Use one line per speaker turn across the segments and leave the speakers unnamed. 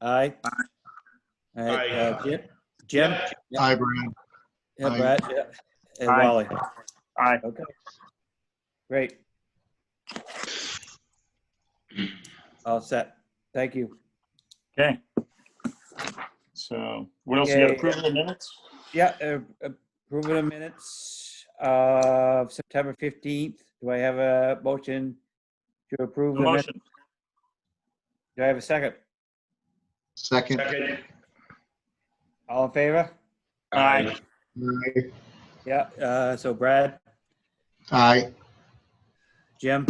Aye. All right, uh, Jim? Jim? Yeah.
Hi, Brad.
Yeah,
Aye.
Brad, yeah. And
Aye.
Wally.
Aye.
Okay. Great. All set. Thank you.
Okay. So what else? You got
Okay.
approval of minutes?
Yeah, uh, approval of minutes of September 15th. Do I have a motion to approve?
No
the min-
Motion.
Do I have a second?
Second.
All in favor?
Aye.
Aye.
Yeah, uh, so Brad,
Aye.
Jim,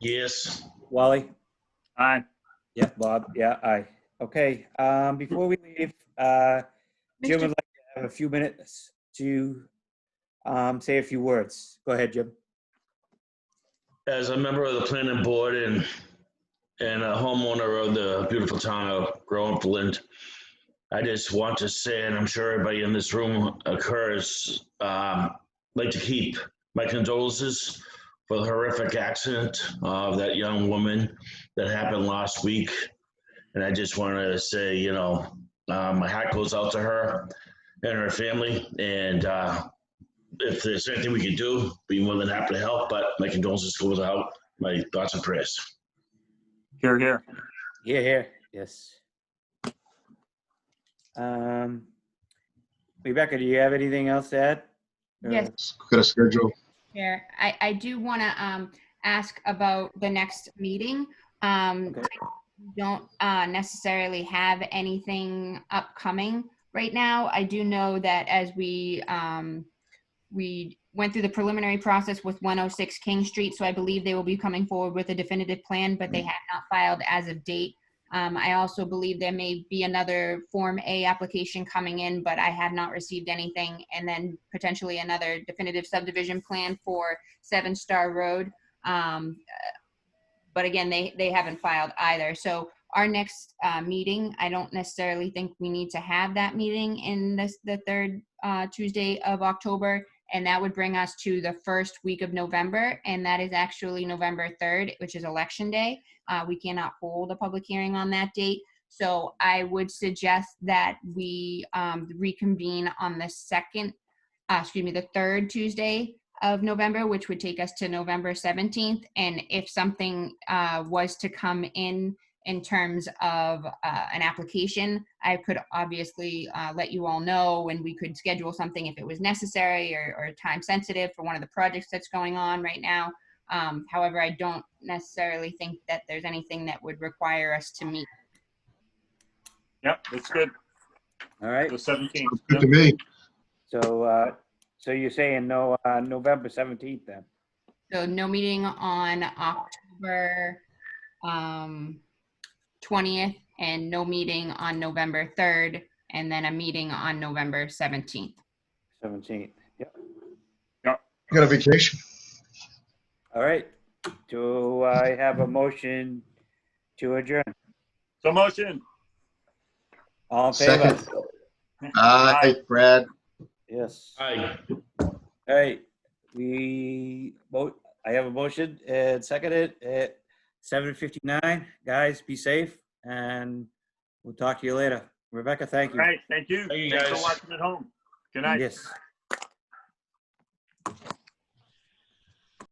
Yes.
Wally?
Aye.
Yeah, Bob, yeah, aye. Okay, um, before we leave, uh, Jim would like to have a few minutes to, um, say a few words. Go ahead, Jim.
As a member of the planning board and, and a homeowner of the beautiful town of Groveland, Flint, I just want to say, and I'm sure everybody in this room occurs, um, like to keep my condolences for the horrific accident of that young woman that happened last week. And I just want to say, you know, uh, my hat goes out to her and her family. And, uh, if there's anything we can do, be more than happy to help, but my condolences goes out, my thoughts and prayers.
Here, here.
Yeah, here. Yes. Um, Rebecca, do you have anything else to add? Or-
Yes,
Got a schedule.
Chair. I, I do want to ask about the next meeting. Um,
Okay.
I Don't uh, necessarily have anything upcoming right now. I do know that as we, um, we went through the preliminary process with 106 King Street, so I believe they will be coming forward with a definitive plan, but they have not filed as of date. Um, I also believe there may be another Form A application coming in, but I have not received anything. And then potentially another definitive subdivision plan for Seven Star Road. Um, uh, but again, they, they haven't filed either. So our next, uh, meeting, I don't necessarily think we need to have that meeting in this, the third, uh, Tuesday of October. And that would bring us to the first week of November, and that is actually November 3rd, which is Election Day. Uh, we cannot hold a public hearing on that date. So I would suggest that we um, reconvene on the second, uh, excuse me, the third Tuesday of November, which would take us to November 17th. And if something uh, was to come in, in terms of uh, an application, I could obviously uh, let you all know and we could schedule something if it was necessary or, or time sensitive for one of the projects that's going on right now. Um, however, I don't necessarily think that there's anything that would require us to meet.
Yep, that's good.
All right,
The 17th.
Good to
Yep.
me.
so, uh, so you're saying no, uh, November 17th then?
So no meeting on October um, 20th and no meeting on November 3rd and then a meeting on November 17th.
17th, yep.
Got a vacation.
All right, do I have a motion to adjourn?
So motion.
All in favor?
Second. Aye, Brad.
Yes.
Aye.
All right, we, vote. I have a motion and seconded at 7:59. Guys, be safe and we'll talk to you later. Rebecca, thank
All
you.
right, thank you.
Thank you,
Thanks for
guys.
watching at home. Good night.
Yes.